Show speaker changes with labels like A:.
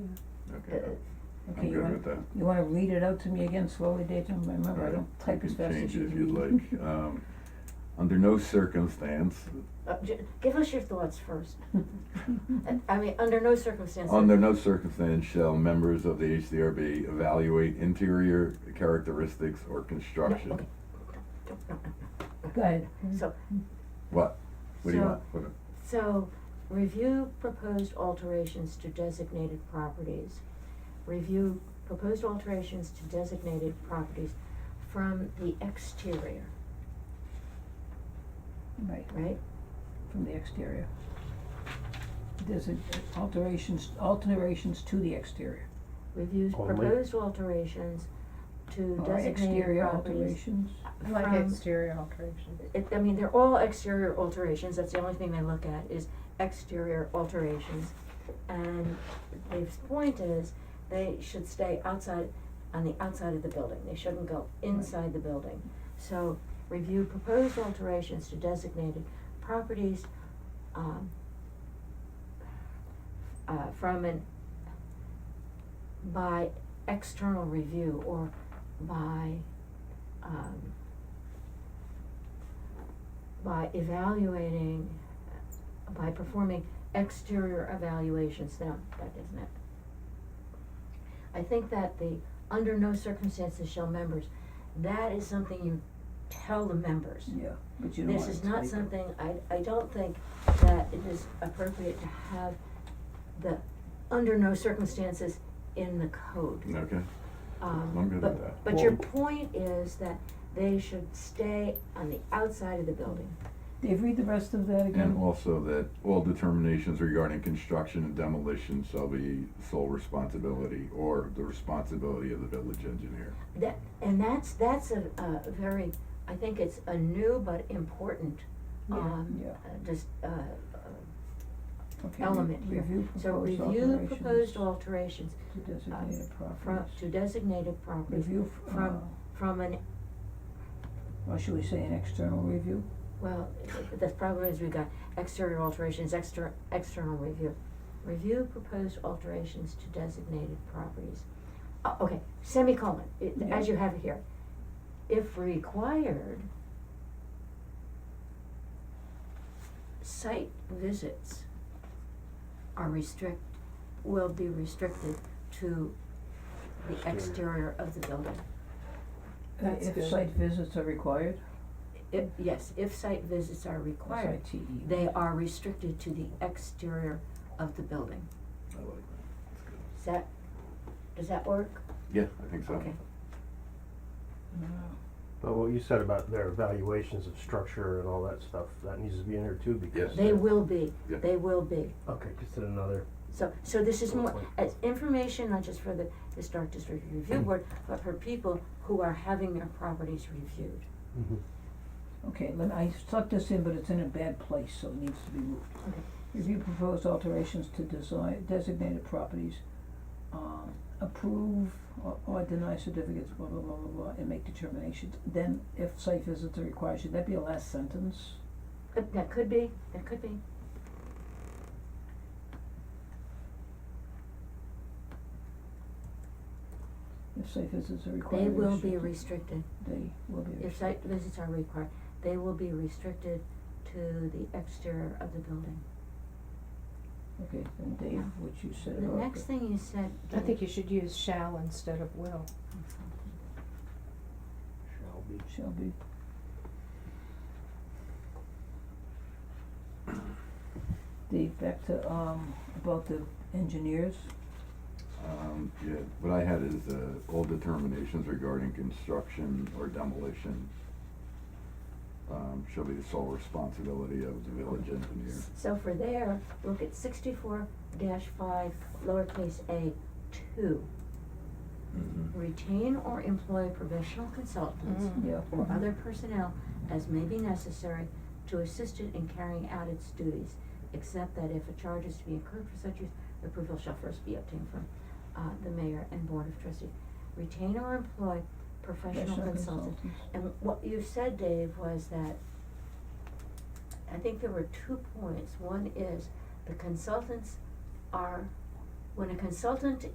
A: Okay,
B: Uh, Okay,
A: I'm
B: you
A: good
B: wanna,
A: with that.
B: you wanna read it out to me again slowly, Dayton, remember, I
A: Alright,
B: don't type as
A: You can
B: fast as
A: change
B: you
A: it if you'd
B: do.
A: like. Um, Under no circumstance,
C: Uh, j- give us your thoughts first. I mean, under no circumstances.
B: Oh,
A: under no circumstance shall members of the HDRB evaluate interior characteristics or
C: No,
A: construction.
C: okay. No, no, no,
B: Go ahead,
D: Mm-hmm.
C: no. So,
A: What? What do you
C: So-
A: want? What-
C: so, review proposed alterations to designated properties. Review proposed alterations to designated properties from the exterior,
B: right,
C: right?
B: from the exterior. There's a alterations, alterations to the exterior,
C: Reviews
E: Only.
C: proposed alterations to
B: or
C: designated
B: exterior
C: properties.
B: alterations,
D: I like
C: from-
D: exterior alterations.
C: it, I mean, they're all exterior alterations, that's the only thing they look at is exterior alterations. And Dave's point is, they should stay outside, on the outside of the building, they shouldn't go inside the building. So, review proposed alterations to designated properties, um, uh, from an, by external review or by, um, by evaluating, by performing exterior evaluations, no, that isn't it. I think that the, under no circumstances shall members, that is something you tell the members.
B: yeah, but you don't
C: This
B: want it
C: is
B: to
C: not
B: be-
C: something, I, I don't think that it is appropriate to have the, under no circumstances in the code.
A: Okay,
C: Um,
A: I'm good
C: but-
A: with that.
C: But your
E: Well-
C: point is that they should stay on the outside of the building.
B: Dave, read the rest of that
A: And
B: again,
A: also that all determinations regarding construction and demolition shall be sole responsibility or the responsibility of the village engineer.
C: That, and that's, that's a, a very, I think it's a new but important,
D: Yeah.
C: um,
B: Yeah.
C: uh, just, uh, uh,
B: okay,
C: element
B: re-
C: here.
B: review
C: so
B: proposed
C: review
B: alterations
C: proposed alterations
B: to designated
C: from,
B: properties,
C: to designated properties
B: review, f- uh,
C: from, from an,
B: or should we say an external review?
C: well, the problem is we got exterior alterations, exter- external review. Review proposed alterations to designated properties. Uh, okay, semicolon, it, as
B: Yeah.
C: you have it here. If required, site visits are restrict, will be restricted to the
E: Exterior.
C: exterior of the building.
B: Uh,
D: That's good.
B: If site visits are required,
C: If, yes, if site visits are
B: or
C: required,
B: site E. TE.
C: They are restricted to the exterior of the building.
A: I like that. That's good.
C: Does that, does that work?
A: Yeah, I think so.
C: Okay.
B: Uh,
E: But what you said about their evaluations of structure and all that stuff, that needs to be in there too because.
A: Yes.
C: They will be,
A: Yeah.
C: they will be.
E: Okay, just did another,
C: So, so this is
E: Good
C: more,
E: point.
C: as information, not just for the Historic District Review Board, but for people who are having their properties reviewed.
B: Okay, let, I stuck this in, but it's in a bad place, so it needs to be moved.
C: Okay.
B: Review proposed alterations to design, designated properties, um, approve or, or deny certificates, blah, blah, blah, blah, blah, and make determinations. Then if site visits are required, should that be a last sentence?
C: That, that could be, that could be.
B: If site visits are required,
C: They will be
B: restricted-
C: restricted,
B: They will be
C: if
B: restricted.
C: site visits are required, they will be restricted to the exterior of the building.
B: Okay, then Dave, what you said
C: The
B: about
C: next thing you said.
D: I think you should use shall instead of will.
E: shall be.
B: Shall be. Dave, back to, um, about the engineers,
A: Um, yeah, what I had is, uh, all determinations regarding construction or demolition, um, shall be the sole responsibility of the village engineer.
C: So for there, look at sixty-four dash five, lowercase a, two.
A: Mm-hmm.
C: Mm-hmm. Retain or employ professional consultants
D: Mm.
B: yeah.
C: or other personnel as may be necessary to assist it in carrying out its duties, except that if a charge is to be incurred for such use, approval shall first be obtained from, uh, the mayor and board of trustees. Retain or employ professional consultants. And what you said, Dave, was that, I think there were two points. One is the consultants are, when a consultant